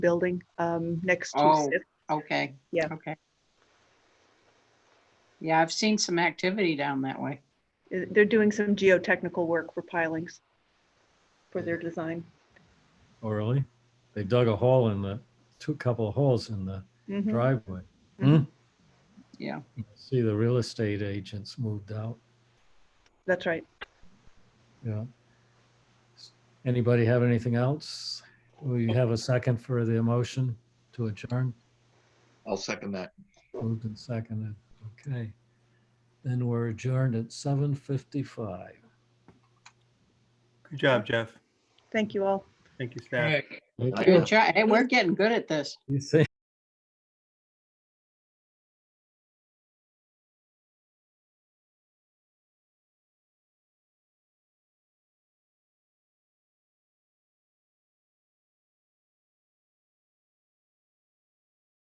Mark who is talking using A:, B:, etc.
A: building um, next to
B: Oh.
A: Sith.
B: Okay.
A: Yeah.
B: Okay. Yeah, I've seen some activity down that way.
A: Uh, They're doing some geotechnical work for pilings for their design.
C: Oh, really? They dug a hole in the, two couple of holes in the
A: Mhm.
C: driveway. Hmm.
A: Mhm.
B: Yeah.
C: See, the real estate agents moved out,
A: That's right.
C: yeah. Anybody have anything else? We have a second for the motion to adjourn,
D: I'll second that.
C: moved and seconded, okay. Then we're adjourned at seven fifty-five.
E: Good job, Jeff.
A: Thank you all.
E: Thank you, staff.
C: Thank
B: Good job. Hey, we're getting good at this.
C: You see?